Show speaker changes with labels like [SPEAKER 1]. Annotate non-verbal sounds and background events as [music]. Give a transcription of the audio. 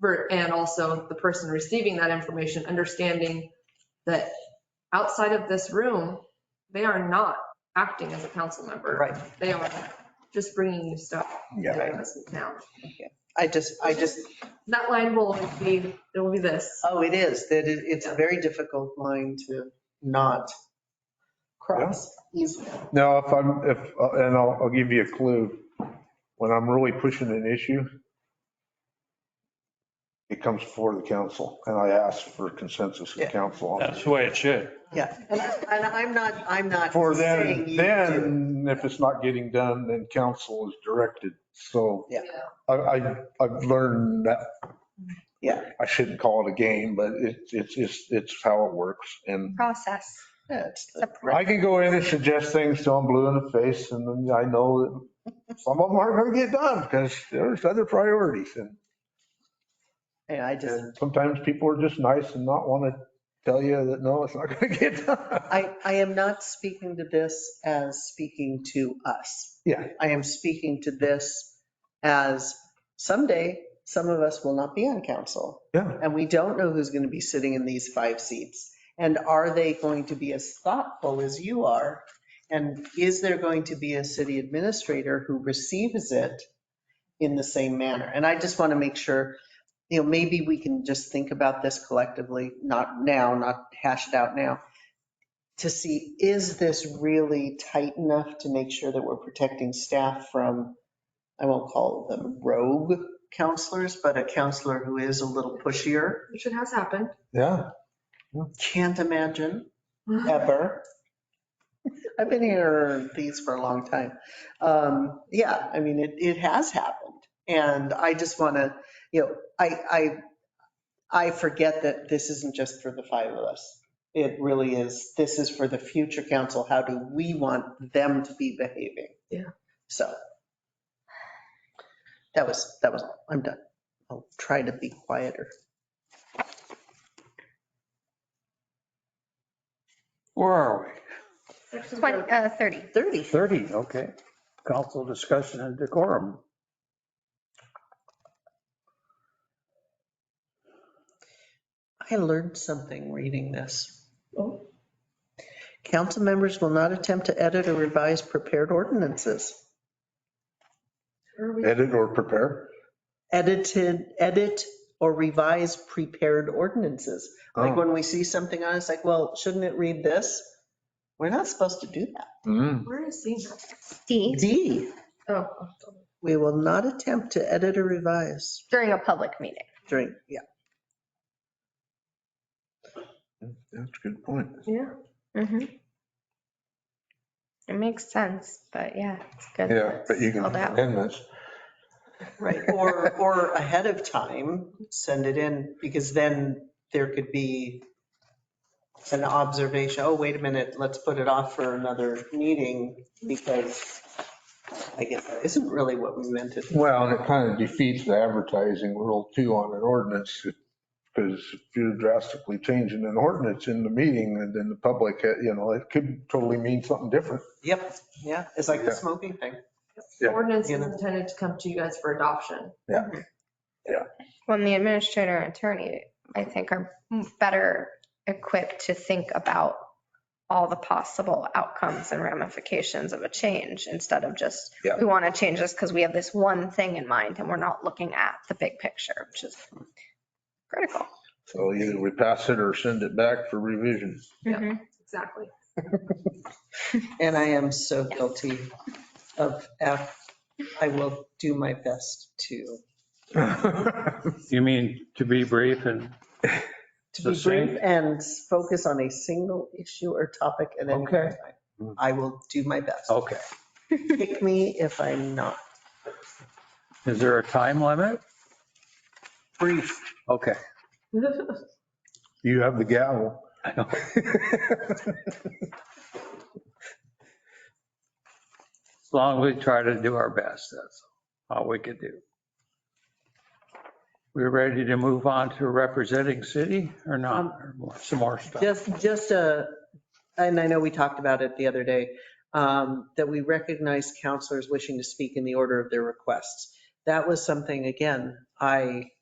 [SPEAKER 1] ver- and also the person receiving that information, understanding that outside of this room, they are not acting as a council member.
[SPEAKER 2] Right.
[SPEAKER 1] They are just bringing you stuff.
[SPEAKER 3] Yeah.
[SPEAKER 1] They're in this town.
[SPEAKER 2] I just, I just,
[SPEAKER 1] That line will always be, it will be this.
[SPEAKER 2] oh, it is, that it, it's a very difficult line to not cross easily.
[SPEAKER 3] Now, if I'm, if, and I'll, I'll give you a clue, when I'm really pushing an issue, it comes before the council and I ask for consensus of
[SPEAKER 2] Yeah.
[SPEAKER 3] council. on
[SPEAKER 4] That's
[SPEAKER 3] it.
[SPEAKER 4] the way it should.
[SPEAKER 2] Yeah, and and I'm not, I'm not
[SPEAKER 3] For
[SPEAKER 2] saying
[SPEAKER 3] then,
[SPEAKER 2] you do.
[SPEAKER 3] then if it's not getting done, then council is directed. So
[SPEAKER 2] Yeah.
[SPEAKER 3] I, I, I've learned that.
[SPEAKER 2] Yeah.
[SPEAKER 3] I shouldn't call it a game, but it's, it's, it's, it's how it works. And
[SPEAKER 5] process.
[SPEAKER 2] Yeah, it's-
[SPEAKER 5] It's a pro-
[SPEAKER 3] I can go in and suggest things till I'm blue in the face and then I know that some of them aren't going to get done because there's other priorities. And
[SPEAKER 2] Yeah, I just,
[SPEAKER 3] and sometimes people are just nice and not want to tell you that, no, it's not [laughs] going to get done.
[SPEAKER 2] I, I am not speaking to this as speaking to us.
[SPEAKER 3] Yeah.
[SPEAKER 2] I am speaking to this as someday, some of us will not be on council.
[SPEAKER 3] Yeah.
[SPEAKER 2] And we don't know who's going to be sitting in these five seats. And are they going to be as thoughtful as you are? And is there going to be a city administrator who receives it in the same manner? And I just want to make sure, you know, maybe we can just think about this collectively, not now, not hashed out now, to see, is this really tight enough to make sure that we're protecting staff from, I won't call them rogue counselors, but a counselor who is a little pushier?
[SPEAKER 1] Which it has happened.
[SPEAKER 3] Yeah.
[SPEAKER 2] Can't imagine ever. I've been here these for a long time. Um, yeah, I mean, it, it has happened. And I just want to, you know, I, I, I forget that this isn't just for the five of us. It really is, this is for the future council. How do we want them to be behaving?
[SPEAKER 1] Yeah.
[SPEAKER 2] So. That was, that was, all. I'm done. I'll try to be quieter.
[SPEAKER 4] Where are
[SPEAKER 1] Section
[SPEAKER 5] 20, uh, 30.
[SPEAKER 2] 30.
[SPEAKER 6] 30, okay. Council discussion and decorum.
[SPEAKER 2] I learned something reading this. Council members will not attempt to edit or revise prepared ordinances.
[SPEAKER 1] Where are we?
[SPEAKER 3] Edit or prepare.
[SPEAKER 2] Edited, edit or revise prepared ordinances. Like when we see something on, it, it's like, well, shouldn't it read this? We're not supposed to do that.
[SPEAKER 3] Mm.
[SPEAKER 1] Where is he? Oh,
[SPEAKER 5] D,
[SPEAKER 2] D,
[SPEAKER 1] Oh,
[SPEAKER 2] we will not attempt to edit or revise
[SPEAKER 5] during a public meeting.
[SPEAKER 2] during, yeah.
[SPEAKER 3] That's a good point.
[SPEAKER 1] yeah.
[SPEAKER 5] Mhm. It makes sense, but yeah, it's good.
[SPEAKER 3] Yeah, but you can
[SPEAKER 5] Spelled out.
[SPEAKER 3] amend this.
[SPEAKER 2] Right. Or, or ahead of time, send it in, because then there could be an observation, oh, wait a minute, let's put it off for another meeting, because I guess that isn't really what we meant it.
[SPEAKER 3] Well, and it kind of defeats the advertising rule too on an ordinance. Because if you're drastically changing an ordinance in the meeting and then the public, you know, it could totally mean something different.
[SPEAKER 2] Yep, yeah, it's like the
[SPEAKER 3] Yeah.
[SPEAKER 2] smoking thing.
[SPEAKER 3] Yeah.
[SPEAKER 1] Ordinance
[SPEAKER 2] You
[SPEAKER 1] is
[SPEAKER 2] know.
[SPEAKER 1] intended to come to you guys for adoption.
[SPEAKER 5] When the administrator and attorney, I think, are better equipped to think about all the possible outcomes and ramifications of a change instead of just,
[SPEAKER 3] Yeah.
[SPEAKER 5] we want to change this because we have this one thing in mind and we're not looking at the big picture, which is critical.
[SPEAKER 3] So either we pass it or send it back for revision.
[SPEAKER 5] Mm-hmm.
[SPEAKER 1] Yeah. Exactly.
[SPEAKER 2] And I am so guilty of F. I will do my best to,
[SPEAKER 6] You mean to be brief and,
[SPEAKER 2] to be
[SPEAKER 6] The same.
[SPEAKER 2] brief and focus on a single issue or topic at any
[SPEAKER 6] Okay.
[SPEAKER 2] time. I will do my best.
[SPEAKER 6] okay.
[SPEAKER 2] Pick me if I'm not.
[SPEAKER 6] Is there a time limit? Brief. Okay.
[SPEAKER 3] You have the gavel.
[SPEAKER 6] I know. As long as we try to do our best, that's all we could do. We're ready to move on to representing city or not? Or Some more stuff.
[SPEAKER 2] Just, just a, and I know we talked about it the other day, um, that we recognize counselors wishing to speak in the order of their requests. That was something, again, I